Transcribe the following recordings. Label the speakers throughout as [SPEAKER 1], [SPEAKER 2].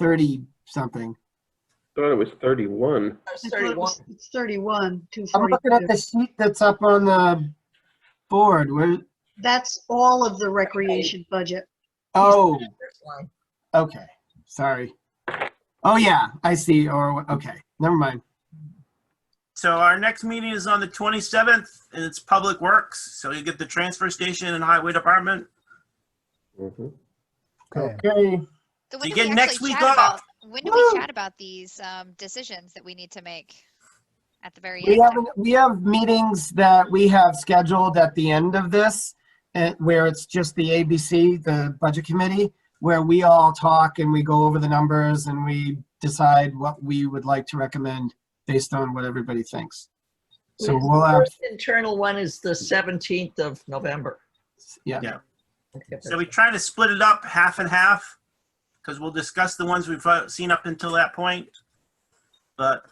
[SPEAKER 1] thirty something.
[SPEAKER 2] Thought it was 31.
[SPEAKER 3] It's
[SPEAKER 4] I thought it
[SPEAKER 3] 31.
[SPEAKER 4] was- It's 31,
[SPEAKER 1] I'm looking at the
[SPEAKER 4] 242.
[SPEAKER 1] sheet that's up on the board. Where,
[SPEAKER 4] That's all of the recreation budget.
[SPEAKER 1] oh,
[SPEAKER 3] First line.
[SPEAKER 1] okay, sorry. Oh, yeah, I see, or, okay, never mind.
[SPEAKER 5] So our next meeting is on the 27th, and it's Public Works, so you get the transfer station and Highway Department.
[SPEAKER 2] Mhm.
[SPEAKER 6] Okay.
[SPEAKER 1] Okay,
[SPEAKER 7] So when
[SPEAKER 5] You
[SPEAKER 7] do
[SPEAKER 5] get
[SPEAKER 7] we
[SPEAKER 5] next
[SPEAKER 7] actually
[SPEAKER 5] week
[SPEAKER 7] chat about-
[SPEAKER 5] off.
[SPEAKER 7] When do we chat about these um, decisions that we need to make at the very
[SPEAKER 1] we
[SPEAKER 7] end?
[SPEAKER 1] have, we have meetings that we have scheduled at the end of this, eh, where it's just the ABC, the Budget Committee, where we all talk and we go over the numbers and we decide what we would like to recommend based on what everybody thinks. So
[SPEAKER 3] The
[SPEAKER 1] we'll have,
[SPEAKER 3] first Internal one is the 17th of November.
[SPEAKER 1] yeah.
[SPEAKER 5] So we try to split it up half and half, because we'll discuss the ones we've uh, seen up until that point. But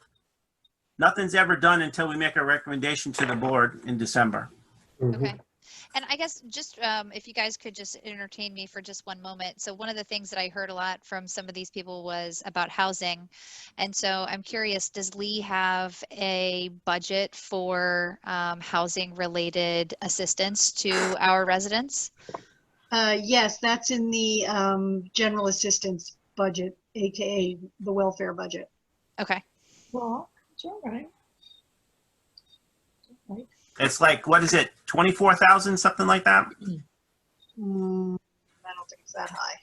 [SPEAKER 5] nothing's ever done until we make a recommendation to the board in December.
[SPEAKER 7] Okay. And I guess just um, if you guys could just entertain me for just one moment. So one of the things that I heard a lot from some of these people was about housing. And so I'm curious, does Lee have a budget for um, housing related assistance to our residents?
[SPEAKER 4] Uh, yes, that's in the, um, general assistance budget, AKA the welfare budget.
[SPEAKER 7] Okay.
[SPEAKER 3] Well, it's all right.
[SPEAKER 5] It's like, what is it, 24,000, something like that?
[SPEAKER 4] Hmm, I don't think it's that high.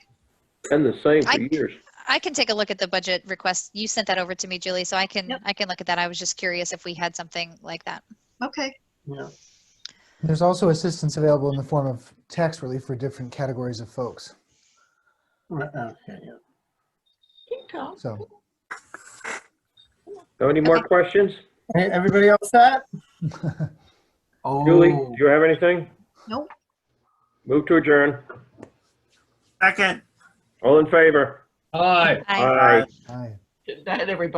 [SPEAKER 2] Been the same for
[SPEAKER 7] I-
[SPEAKER 2] years.
[SPEAKER 7] I can take a look at the budget request. You sent that over to me, Julie, so I can,
[SPEAKER 4] Yep.
[SPEAKER 7] I can look at that. I was just curious if we had something like that.
[SPEAKER 4] Okay,
[SPEAKER 6] There's also assistance available in the form of tax relief for different categories of folks.
[SPEAKER 1] Right, okay, yeah.
[SPEAKER 3] Keep going.
[SPEAKER 6] So
[SPEAKER 2] Got any more questions?
[SPEAKER 1] Hey, everybody else set? Oh,
[SPEAKER 2] Julie, do you have anything?
[SPEAKER 4] Nope.
[SPEAKER 2] Move to adjourn.
[SPEAKER 5] Second.
[SPEAKER 2] All in favor?
[SPEAKER 8] Hi.
[SPEAKER 7] Aye.
[SPEAKER 2] Aye.
[SPEAKER 6] aye.
[SPEAKER 3] Good night, everybody.